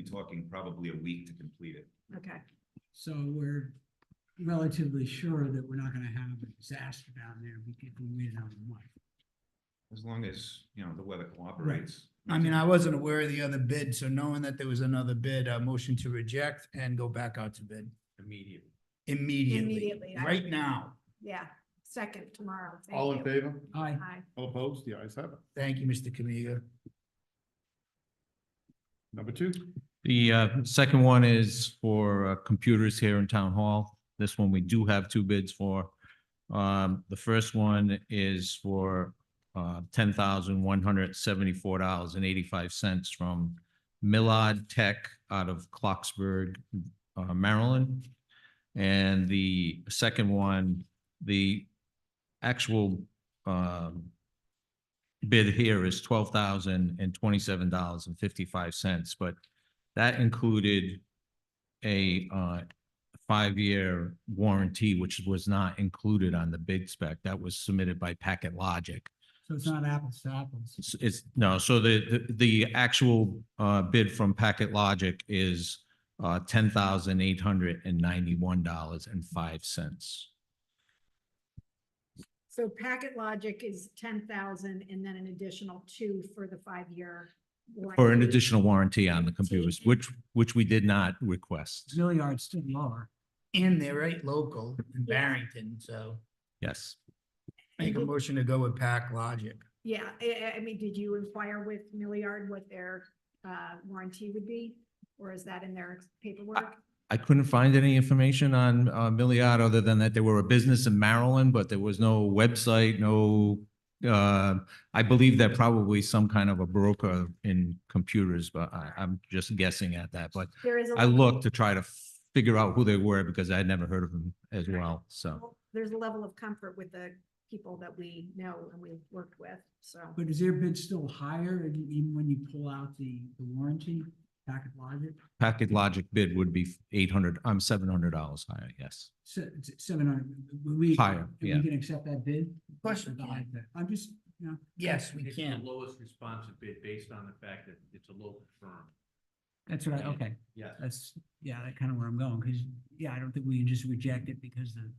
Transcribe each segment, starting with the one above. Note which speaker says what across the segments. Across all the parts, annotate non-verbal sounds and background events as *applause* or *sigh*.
Speaker 1: talking probably a week to complete it.
Speaker 2: Okay,
Speaker 3: So we're relatively sure that we're not gonna have a disaster down there because we made it out of month.
Speaker 1: As long as, you know, the weather cooperates.
Speaker 4: I mean, I wasn't aware of the other bid, so knowing that there was another bid, uh, motion to reject and go back out to bid
Speaker 1: Immediately.
Speaker 4: immediately,
Speaker 2: Immediately, I-
Speaker 4: right now.
Speaker 2: yeah, second tomorrow. Thank
Speaker 5: All in
Speaker 2: you.
Speaker 5: favor?
Speaker 3: I,
Speaker 2: Aye.
Speaker 5: All opposed? The ayes have it.
Speaker 4: Thank you, Mr. Kamiga.
Speaker 5: Number two,
Speaker 6: The uh, second one is for uh, computers here in Town Hall. This one we do have two bids for. Um, The first one is for uh, ten thousand one hundred seventy-four dollars and eighty-five cents from Millard Tech out of Clarksburg, uh, Maryland. And the second one, the actual um, bid here is twelve thousand and twenty-seven dollars and fifty-five cents, but that included a uh five-year warranty, which was not included on the bid spec. That was submitted by Packet Logic.
Speaker 3: so it's not apples to apples.
Speaker 6: It's, it's, no, so the, the, the actual, uh, bid from Packet Logic is, uh, ten thousand eight hundred and ninety-one dollars and five cents.
Speaker 2: So Packet Logic is ten thousand and then an additional two for the five-year.
Speaker 6: For an
Speaker 2: warranty.
Speaker 6: additional warranty on the computers, which, which we did not request.
Speaker 3: Milliard's still lower.
Speaker 4: And they're right local in
Speaker 2: Yeah.
Speaker 4: Barrington, so
Speaker 6: Yes.
Speaker 4: make a motion to go with Pack Logic.
Speaker 2: Yeah, I, I- I mean, did you inquire with Milliard what their, uh, warranty would be? Or is that in their paperwork?
Speaker 6: I couldn't find any information on uh, Milliard other than that they were a business in Maryland, but there was no website, no. Uh, I believe they're probably some kind of a broker in computers, but I, I'm just guessing at that. But
Speaker 2: There is a.
Speaker 6: I
Speaker 2: level-
Speaker 6: looked to try to figure out who they were because I had never heard of them as well. So
Speaker 2: There's a level of comfort with the people that we know and we've worked with, so.
Speaker 3: But is their bid still higher and even when you pull out the, the warranty, packet logic,
Speaker 6: Packet Logic bid would be eight hundred, I'm seven hundred dollars higher, yes.
Speaker 3: se- it's seven hundred, we.
Speaker 6: Higher,
Speaker 3: we
Speaker 6: yeah.
Speaker 3: can accept that bid?
Speaker 4: Question.
Speaker 3: The high bid. I'm just, you know,
Speaker 4: Yes, we
Speaker 7: It's the
Speaker 4: can.
Speaker 7: Lowest responsive bid based on the fact that it's a local firm.
Speaker 3: that's right, okay.
Speaker 7: Yes.
Speaker 3: That's, yeah, that kind of where I'm going, because, yeah, I don't think we can just reject it because the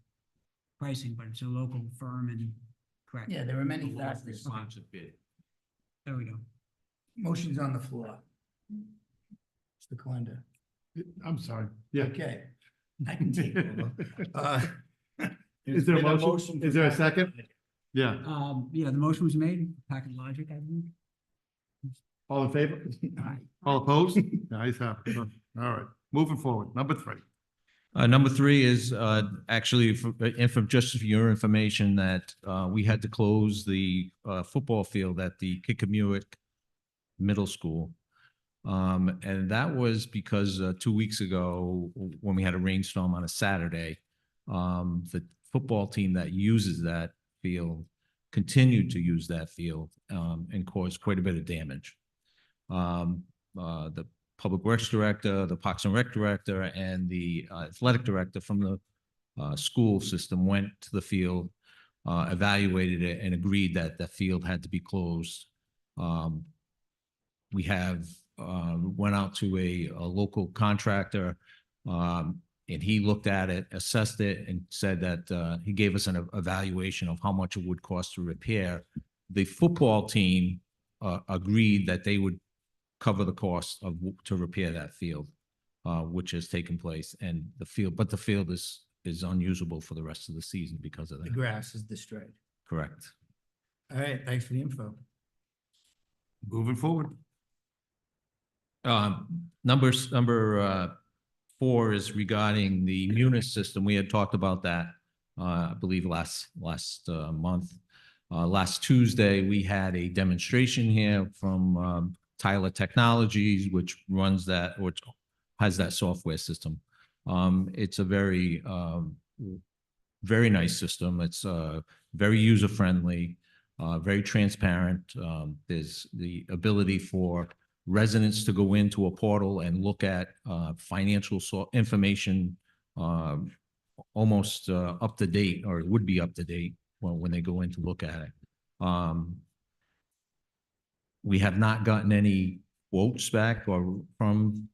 Speaker 3: pricing, but it's a local firm and, correct.
Speaker 4: Yeah, there are
Speaker 7: The
Speaker 4: many
Speaker 7: lowest
Speaker 4: factors.
Speaker 7: responsive bid.
Speaker 3: There we go.
Speaker 4: Motion's on the floor. Mr. Kalenda.
Speaker 5: I'm sorry, yeah.
Speaker 4: Okay. I can take
Speaker 7: *laughs*
Speaker 4: over.
Speaker 5: *laughs*
Speaker 4: Uh, *laughs*
Speaker 5: Is there a
Speaker 4: been a
Speaker 5: motion?
Speaker 4: motion for
Speaker 5: Is there a
Speaker 4: Packet
Speaker 5: second? Yeah,
Speaker 3: Um, yeah, the motion was made, Packet Logic, I think.
Speaker 5: all in favor?
Speaker 4: Aye.
Speaker 5: All opposed? The ayes have it. All right, moving forward. Number three.
Speaker 6: Uh, number three is, uh, actually, for, uh, for, just for your information, that, uh, we had to close the, uh, football field at the Kikamuick Middle School. Um, and that was because, uh, two weeks ago, w- when we had a rainstorm on a Saturday, um, the football team that uses that field continued to use that field, um, and caused quite a bit of damage. Um, uh, the Public Works Director, the Parks and Rec Director, and the uh, Athletic Director from the uh, school system went to the field, uh, evaluated it, and agreed that the field had to be closed. Um, We have, uh, went out to a, a local contractor, um, and he looked at it, assessed it, and said that uh, he gave us an evaluation of how much it would cost to repair. The football team uh, agreed that they would cover the cost of, w- to repair that field, uh, which has taken place and the field, but the field is, is unusable for the rest of the season because of
Speaker 4: The
Speaker 6: that.
Speaker 4: grass is destroyed.
Speaker 6: Correct.
Speaker 4: All right, thanks for the info.
Speaker 5: Moving forward.
Speaker 6: Um, numbers, number, uh, four is regarding the Munis system. We had talked about that, uh, I believe last, last, uh, month. Uh, last Tuesday, we had a demonstration here from, um, Tyler Technologies, which runs that, which has that software system. Um, it's a very, um, very nice system. It's, uh, very user-friendly, uh, very transparent. Um, there's the ability for, residents to go into a portal and look at uh, financial so- information um, almost uh, up to date, or it would be up to date when, when they go in to look at it. Um, We have not gotten any quotes back or from